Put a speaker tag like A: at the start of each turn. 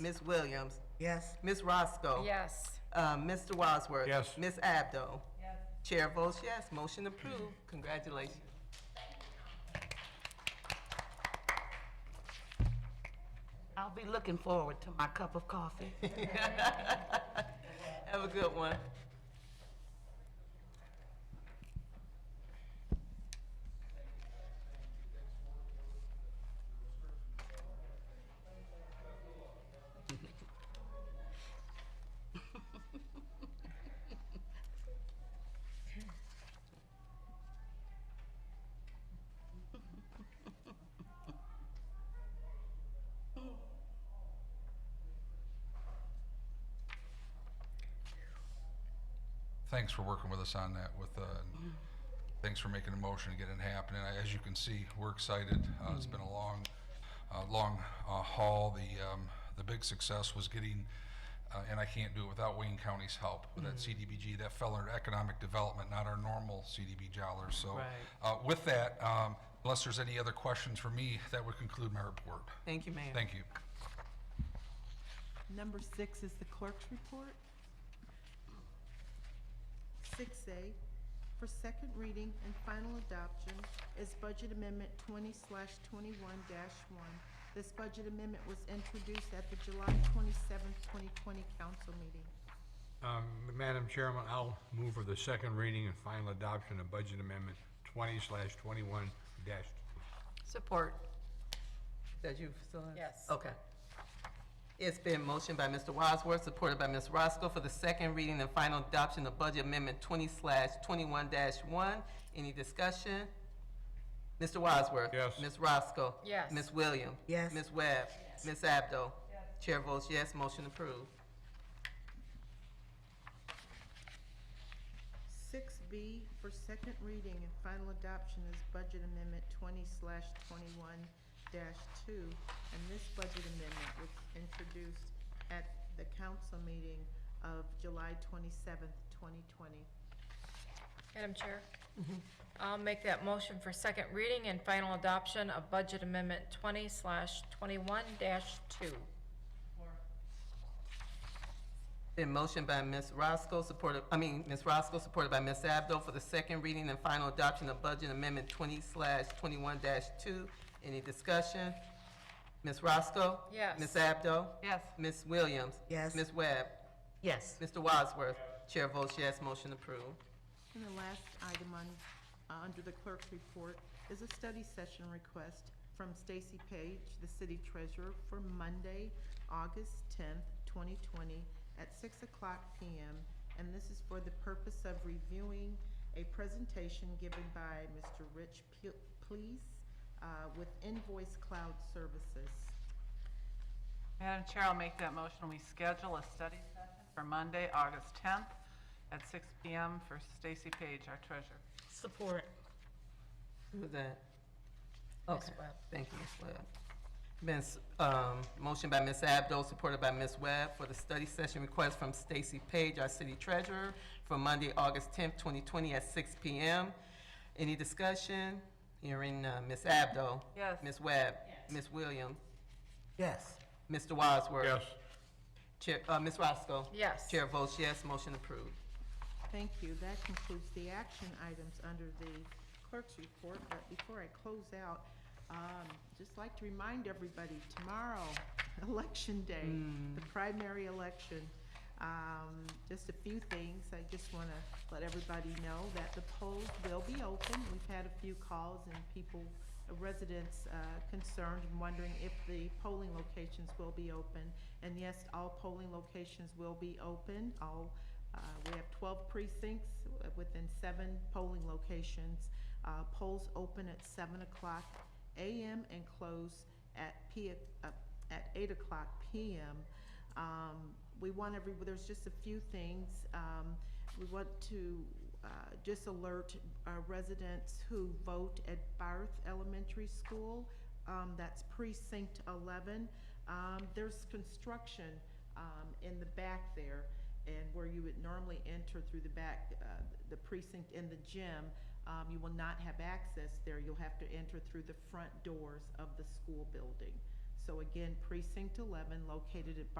A: Ms. Williams,
B: Yes.
A: Ms. Roscoe.
C: Yes.
A: Uh, Mr. Wadsworth.
D: Yes.
A: Ms. Abdo. Chair votes yes, motion approved. Congratulations.
B: I'll be looking forward to my cup of coffee.
A: Have a good one.
D: Thanks for working with us on that with, uh, and thanks for making a motion to get it happening. As you can see, we're excited. Uh, It's been a long, uh, long uh, haul. The, um, the big success was getting, uh, and I can't do it without Wayne County's help, with that CDBG, that fell under economic development, not our normal CDB dollars. So
A: Right.
D: uh, with that, um, unless there's any other questions for me, that would conclude my report.
A: Thank you, ma'am.
D: Thank you.
E: Number six is the clerk's report. 6A for second reading and final adoption is Budget Amendment 20/21-1. This budget amendment was introduced at the July 27, 2020 council meeting.
F: Um, Madam Chairman, I'll move for the second reading and final adoption of Budget Amendment 20/21-. dash.
C: Support.
A: Did you Priscilla?
C: Yes.
A: Okay. It's been motioned by Mr. Wadsworth, supported by Ms. Roscoe for the second reading and final adoption of Budget Amendment twenty twenty-one one. Any discussion? Mr. Wadsworth?
F: Yes.
A: Ms. Roscoe?
C: Yes.
A: Ms. Williams?
B: Yes.
A: Ms. Webb? Yes. Ms. Abdo? Chair votes yes, motion approved.
E: 6B for second reading and final adoption is Budget Amendment 20/21-2. And this budget amendment was introduced at the council meeting of July 27, 2020.
C: Madam Chair, I'll make that motion for second reading and final adoption of Budget Amendment 20/21-2.
A: Been motioned by Ms. Roscoe, supported, I mean, Ms. Roscoe, supported by Ms. Abdo for the second reading and final adoption of Budget Amendment twenty twenty-one two. Any discussion? Ms. Roscoe?
C: Yes.
A: Ms. Abdo?
C: Yes.
A: Ms. Williams?
B: Yes.
A: Ms. Webb?
B: Yes.
A: Mr. Wadsworth? Chair votes yes, motion approved.
E: And the last item on, uh, under the clerk's report is a study session request from Stacy Page, the city treasurer, for Monday, August 10th, 2020, at 6 o'clock PM. And this is for the purpose of reviewing a presentation given by Mr. Rich Pe- Please uh, with Invoice Cloud Services.
G: Madam Chair, I'll make that motion. We schedule a study session for Monday, August 10th at 6 PM for Stacy Page, our treasurer.
B: Support.
A: Who was that? Okay,
C: Webb.
A: thank you, Ms. Webb. Ms., um, motion by Ms. Abdo, supported by Ms. Webb, for the study session request from Stacy Page, our city treasurer, for Monday, August tenth, twenty twenty, at six P M. Any discussion? Hearing, uh, Ms. Abdo.
G: Yes.
A: Ms. Webb. Yes. Ms. Williams.
B: Yes.
A: Mr. Wadsworth.
F: Yes.
A: Chair, uh, Ms. Roscoe.
C: Yes.
A: Chair votes yes, motion approved.
E: Thank you. That concludes the action items under the clerk's report, but before I close out, um, just like to remind everybody, tomorrow, Election Day, the primary election. Um, Just a few things. I just want to let everybody know that the polls will be open. We've had a few calls and people, residents uh, concerned and wondering if the polling locations will be open. And yes, all polling locations will be open. All uh, We have 12 precincts uh, within seven polling locations. Uh, Polls open at 7 o'clock a.m. and close at P, uh, at 8 o'clock p.m. Um, We want every, there's just a few things. Um, We want to uh, just alert uh, residents who vote at Barth Elementary School, um, that's precinct 11. Um, There's construction um, in the back there, and where you would normally enter through the back, uh, the precinct in the gym, um, you will not have access there. You'll have to enter through the front doors of the school building. So So again, precinct eleven located at Bar-